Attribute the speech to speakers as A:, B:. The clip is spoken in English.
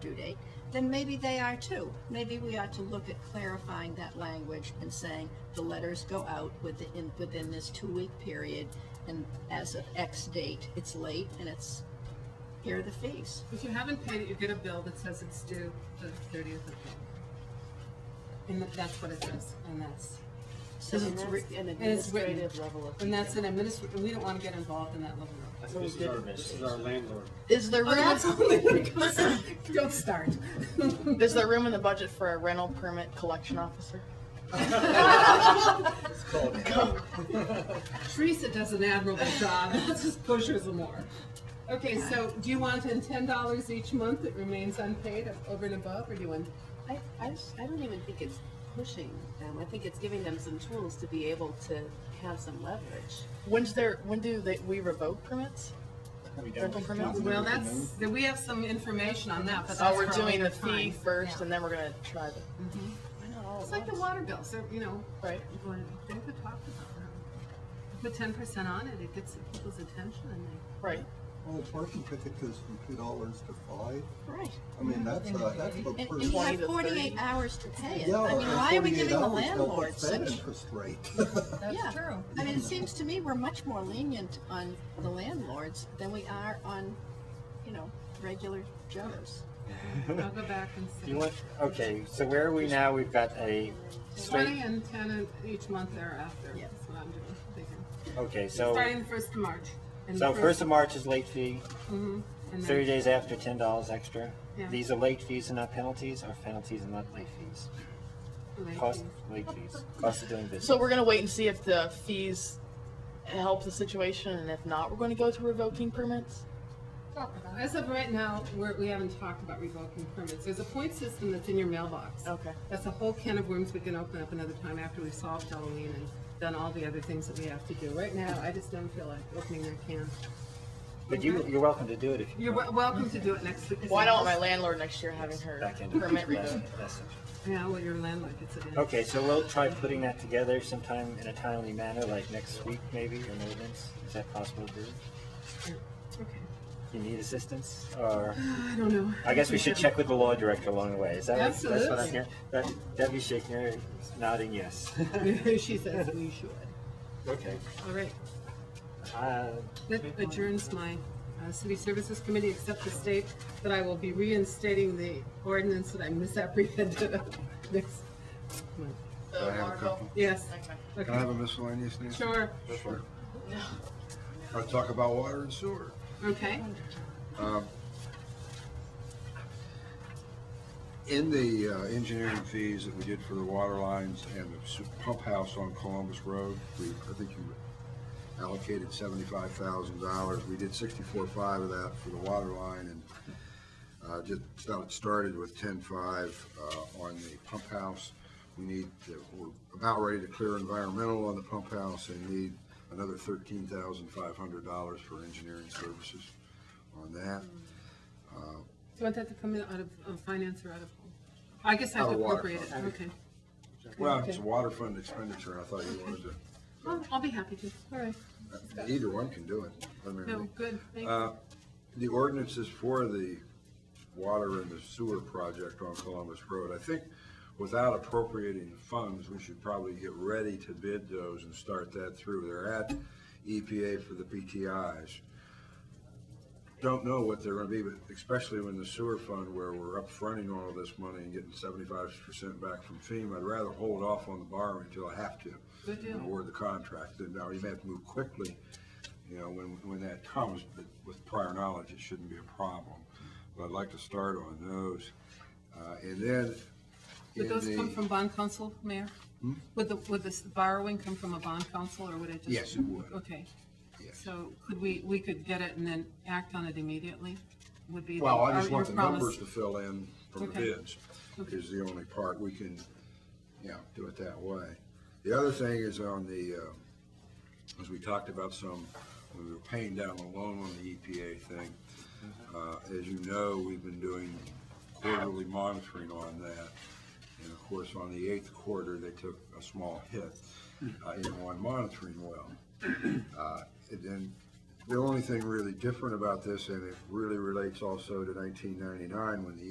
A: due date, then maybe they are too. Maybe we ought to look at clarifying that language and saying the letters go out within, within this two-week period, and as of X date, it's late and it's, here are the fees.
B: If you haven't paid it, you get a bill that says it's due the thirtieth of May. And that- that's what it says, and that's,
A: So
B: And
A: it's re- an
B: and it's written.
A: administrative level of
B: and that's
A: detail.
B: an administr, and we don't wanna get involved in that level of.
C: This is our, this is our landlord.
D: Is there
B: Oh, that's
D: room,
B: only because, don't start.
D: is there room in the budget for a rental permit collection officer?
C: It's called code.
B: Teresa does an admirable job, let's just push her some more. Okay, so do you want in ten dollars each month that remains unpaid of- over and above, or do you want?
E: I, I, s- I don't even think it's pushing them. I think it's giving them some tools to be able to have some leverage.
D: When's there, when do they, we revoke permits?
C: We don't-
D: Rental permits?
B: Well, that's, we have some information on that, but that's
D: Oh,
B: for
D: we're
B: a
D: doing
B: later
D: the fee
B: time.
D: first and then we're gonna try the,
A: Why not all
B: It's
A: at
B: like the
A: once?
B: water bill, so, you know,
D: right?
B: you want to- they could talk about that. Put ten percent on it, it gets people's attention and they.
D: Right.
F: Well, a parking ticket goes from two dollars to five.
A: Right.
F: I mean, that's a, that's a
A: And
F: pretty.
A: and you
D: 20
A: have
D: to
A: 48
D: 30.
A: hours to pay it.
F: Yeah,
A: I mean,
F: and
A: why are we
F: 48
A: giving the
F: hours helps
A: landlord
F: the Fed
A: such?
F: Interest rate.
A: That's true. I mean, it seems to me we're much more lenient on the landlords than we are on, you know, regular Joes.
B: I'll go back and see.
G: You want, okay, so where are we now? We've got a
B: Twenty
G: straight,
B: and ten and each month thereafter,
A: Yeah.
B: that's what I'm doing, thinking.
G: okay, so,
B: Starting the first of March. and the
G: so first of March is late fee,
B: Mhm, and
G: thirty
B: then-
G: days after, ten dollars extra.
B: Yeah.
G: These are late fees and not penalties, or penalties and not late fees?
B: Late
G: Cost,
B: fees.
G: late fees, cost of doing business.
D: So we're gonna wait and see if the fees help the situation and if not, we're gonna go to revoking permits?
B: As of right now, we're, we haven't talked about revoking permits. There's a point system that's in your mailbox.
D: Okay.
B: That's a whole can of worms we can open up another time after we've solved Halloween and done all the other things that we have to do. Right now, I just don't feel like opening that can.
G: But you, you're welcome to do it if you
B: You're wel- welcome to do it next week.
D: Why don't my landlord next year having her
G: back into
D: permit revoked?
B: Yeah, well, your landlord gets it in.
G: Okay, so we'll try putting that together sometime in a timely manner, like next week maybe, or ordinance. Is that possible to do?
B: Okay.
G: You need assistance, or?
B: I don't know.
G: I guess we should check with the law director along the way. Is that what- that's what
B: Absolutely.
G: I'm hearing? That, Debbie Schickner is nodding yes.
B: She says we should.
G: okay.
B: All right.
G: Uh,
B: That adjourns my uh, City Services Committee, except to state that I will be reinstating the ordinance that I misapprehended of next month.
D: So,
H: I have a
D: Marco?
H: couple?
B: Yes,
D: Okay.
H: Can I
B: okay,
H: have a miscellaneous name?
B: sure,
H: Sure. I'll talk about water and sewer.
B: okay.
H: Um, In the uh, engineering fees that we did for the water lines and the su- pump house on Columbus Road, we, I think you allocated seventy-five thousand dollars. We did sixty-four five of that for the water line and uh, just about it started with ten-five uh, on the pump house. We need, to- we're about ready to clear environmental on the pump house and need another thirteen thousand five hundred dollars for engineering services on that.
B: Do you want that to come in out of uh, finance or out of? I guess I have
H: Out
B: to
H: of water.
B: appropriate it, okay.
H: Well, it's a water fund expenditure, I thought you wanted to,
B: Well, I'll be happy to, all right.
H: either one can do it. I mean,
B: No, good, thank
H: Uh,
B: you.
H: The ordinances for the water and the sewer project on Columbus Road, I think without appropriating funds, we should probably get ready to bid those and start that through. They're at EPA for the PTIs. Don't know what they're gonna be, but especially when the sewer fund where we're upfronting all of this money and getting seventy-five percent back from FEMA, I'd rather hold off on the borrowing until I have to.
B: Good deal.
H: and Award the contract, then now you may have to move quickly, you know, when, when that comes, but with prior knowledge, it shouldn't be a problem. But I'd like to start on those. Uh, and then.
B: Would
H: in
B: those
H: the- Hmm?
B: come from bond council, Mayor? Would the, would this borrowing come from a bond council, or would it just?
H: Yes, it would.
B: Okay.
H: Yes.
B: So could we, we could get it and then act on it immediately? Would be. the-
H: Well, I just
B: our-
H: want the
B: your promise.
H: numbers to fill in from the
B: Okay.
H: bids, is the only part we can, yeah, do it that way. The other thing is on the, uh, as we talked about some, when we were paying down the loan on the EPA thing. Uh, as you know, we've been doing quarterly monitoring on that. And of course, on the eighth quarter, they took a small hit, uh, in one monitoring well. Uh, and then the only thing really different about this, and it really relates also to nineteen ninety-nine, when the